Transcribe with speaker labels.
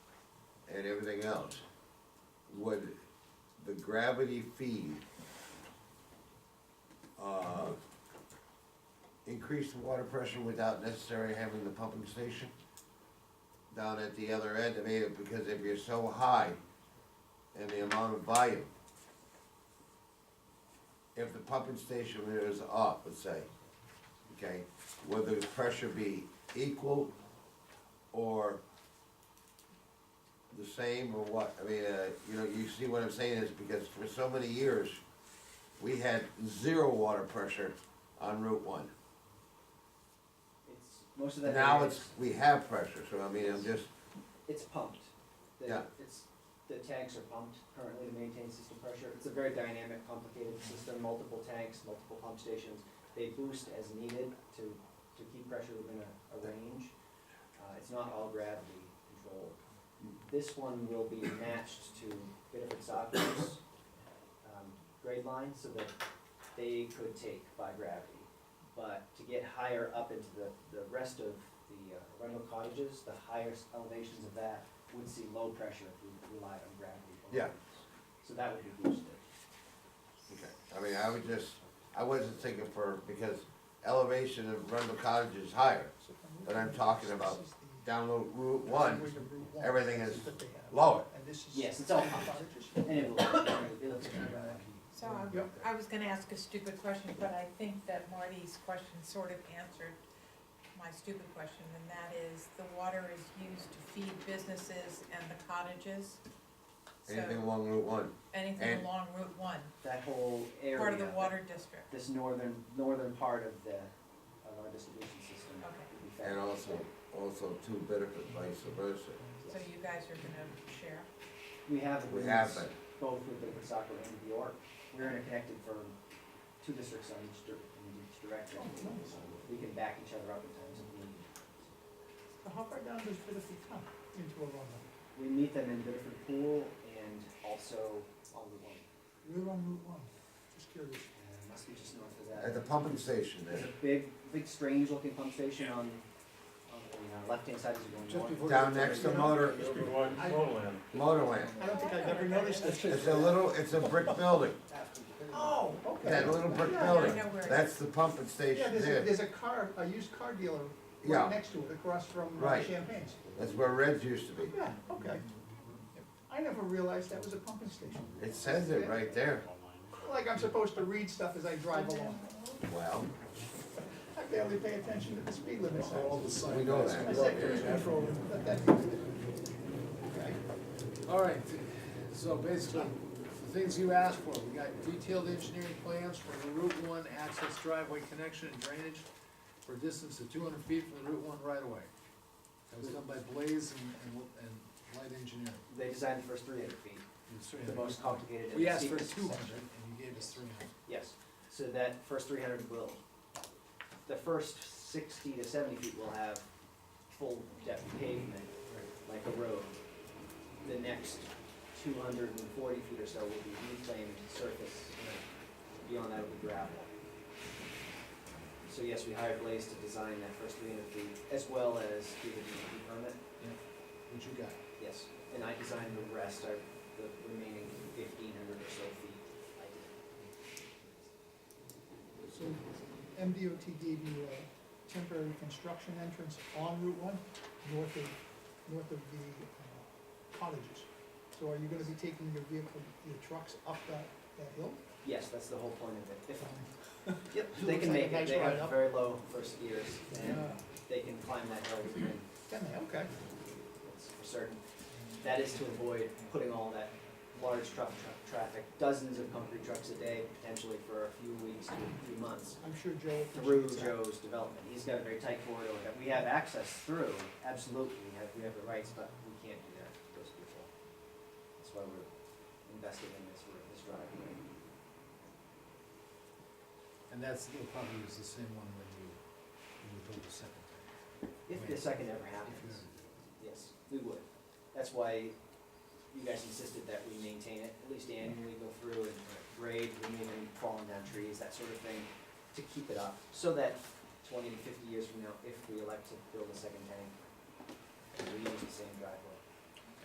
Speaker 1: and everything else, would the gravity feed, uh, increase the water pressure without necessarily having the pumping station down at the other end of it, because if you're so high in the amount of volume, if the pumping station is up, let's say, okay, would the pressure be equal or the same or what? I mean, uh, you know, you see what I'm saying is because for so many years, we had zero water pressure on Route One.
Speaker 2: It's, most of that
Speaker 1: Now
Speaker 2: area
Speaker 1: it's, we have pressure, so I mean, I'm just,
Speaker 2: It's pumped. The-
Speaker 1: Yeah.
Speaker 2: It's, the tanks are pumped currently to maintain system pressure. It's a very dynamic, complicated system, multiple tanks, multiple pump stations. They boost as needed to, to keep pressure within a, a range. Uh, it's not all gravity controlled. This one will be matched to Bitterford Soccer's, um, grade line so that they could take by gravity. But to get higher up into the, the rest of the uh, rental cottages, the highest elevations of that would see low pressure if we relied on gravity. only.
Speaker 1: Yeah.
Speaker 2: So that would be boosted.
Speaker 1: okay. I mean, I was just, I wasn't thinking for, because elevation of Rundle Cottage is higher, but I'm talking about down Lo- Route One, everything is lower.
Speaker 2: Yes, it's all pumped, and it will, it'll take gravity.
Speaker 3: So I'm- I was gonna ask a stupid question, but I think that Marty's question sort of answered my stupid question, and that is, the water is used to feed businesses and the cottages.
Speaker 1: Anything
Speaker 3: So,
Speaker 1: along Route One,
Speaker 3: anything
Speaker 1: and-
Speaker 3: along Route One,
Speaker 2: That whole area.
Speaker 3: part of the water district.
Speaker 2: This northern, northern part of the, of our distribution system.
Speaker 3: Okay.
Speaker 2: would be affected.
Speaker 1: and also, also two Bitterford, vice versa.
Speaker 3: So you guys are gonna share?
Speaker 2: We have
Speaker 1: We have
Speaker 2: agreements
Speaker 1: that.
Speaker 2: both with Bitterford Soccer and New York. We're interconnected for two districts on each, dir- in each direction.
Speaker 3: Oh,
Speaker 2: We can back each other up at times if needed.
Speaker 4: How far down does Bitterford come into a runway?
Speaker 2: We meet them in Bitterford Pool and also on the one.
Speaker 4: We're on Route one, just curious.
Speaker 2: Uh, Must be just north of
Speaker 1: At the
Speaker 2: that.
Speaker 1: pumping station
Speaker 2: There's
Speaker 1: there.
Speaker 2: a big, big strange looking pump station on, on the left hand side as
Speaker 4: Just
Speaker 2: you're going north.
Speaker 4: before-
Speaker 1: Down next to Motor,
Speaker 5: Just be one, one land.
Speaker 1: Motorland.
Speaker 4: I don't think I've ever noticed
Speaker 1: It's
Speaker 4: this.
Speaker 1: a little, it's a brick building,
Speaker 4: Oh, okay.
Speaker 1: that little brick
Speaker 4: Yeah,
Speaker 3: I
Speaker 1: building.
Speaker 3: know where it
Speaker 1: Oh, That's
Speaker 3: is.
Speaker 1: the pumping
Speaker 4: Yeah,
Speaker 1: station
Speaker 4: there's a,
Speaker 1: there.
Speaker 4: there's a car, a used car dealer
Speaker 1: Yeah.
Speaker 4: right next to it, across from uh,
Speaker 1: Right.
Speaker 4: Champagne's.
Speaker 1: That's where Reds used to be.
Speaker 4: Yeah, okay. I never realized that was a pumping station.
Speaker 1: It says it right there.
Speaker 4: Like I'm supposed to read stuff as I drive along.
Speaker 1: Well,
Speaker 4: I barely pay attention to the speed limit signs.
Speaker 1: we know
Speaker 4: I
Speaker 1: that.
Speaker 4: said cruise control, but that- Okay.
Speaker 6: All right, so basically, the things you asked for, we got detailed engineering plans for the Route One access driveway connection and drainage for a distance of two hundred feet from the Route One right away. That was done by Blaze and, and, and Light Engineering.
Speaker 2: They designed the first three hundred feet,
Speaker 6: It's three
Speaker 2: the
Speaker 6: hundred.
Speaker 2: most complicated. and
Speaker 6: We asked for
Speaker 2: steepest
Speaker 6: two
Speaker 2: section.
Speaker 6: hundred, and you gave us three hundred.
Speaker 2: Yes, so that first three hundred will, the first sixty to seventy feet will have full depth pavement, like a road. The next two hundred and forty feet or so will be reclaimed surface, beyond that will be gravel. So yes, we hired Blaze to design that first three hundred feet, as well as do the DEP permit,
Speaker 6: What you got?
Speaker 2: yes, and I designed the rest, I, the remaining fifteen hundred or so feet, I did.
Speaker 4: So MDOT gave you a uh, temporary construction entrance on Route one, north of, north of the uh, cottages. So are you gonna be taking your vehicle, your trucks up that, that hill?
Speaker 2: Yes, that's the whole point of it. If, yep,
Speaker 4: It
Speaker 2: they
Speaker 4: looks
Speaker 2: can
Speaker 4: like a
Speaker 2: make it,
Speaker 4: nice
Speaker 2: they
Speaker 4: ride
Speaker 2: have
Speaker 4: up.
Speaker 2: very low first gears, and
Speaker 4: Yeah.
Speaker 2: they can climb that hill, and
Speaker 4: Can they, Uh, okay.
Speaker 2: it's for certain. That is to avoid putting all that large truck, truck traffic, dozens of concrete trucks a day, potentially for a few weeks to a few months,
Speaker 4: I'm sure Joe
Speaker 2: through
Speaker 4: appreciates that.
Speaker 2: Joe's development. He's got a very tight corridor that we have access through, absolutely, we have, we have the rights, but we can't do that to those people. That's why we're investing in this, this driveway.
Speaker 6: And that's, they'll probably use the same one when you, when you build the second tank.
Speaker 2: If the second ever
Speaker 6: If
Speaker 2: happens.
Speaker 6: you-
Speaker 2: Yes, we would. That's why you guys insisted that we maintain it, at least annually go through and grade, remove any fallen down trees, that sort of thing, to keep it up, so that twenty to fifty years from now, if we elect to build a second tank, we use the same driveway.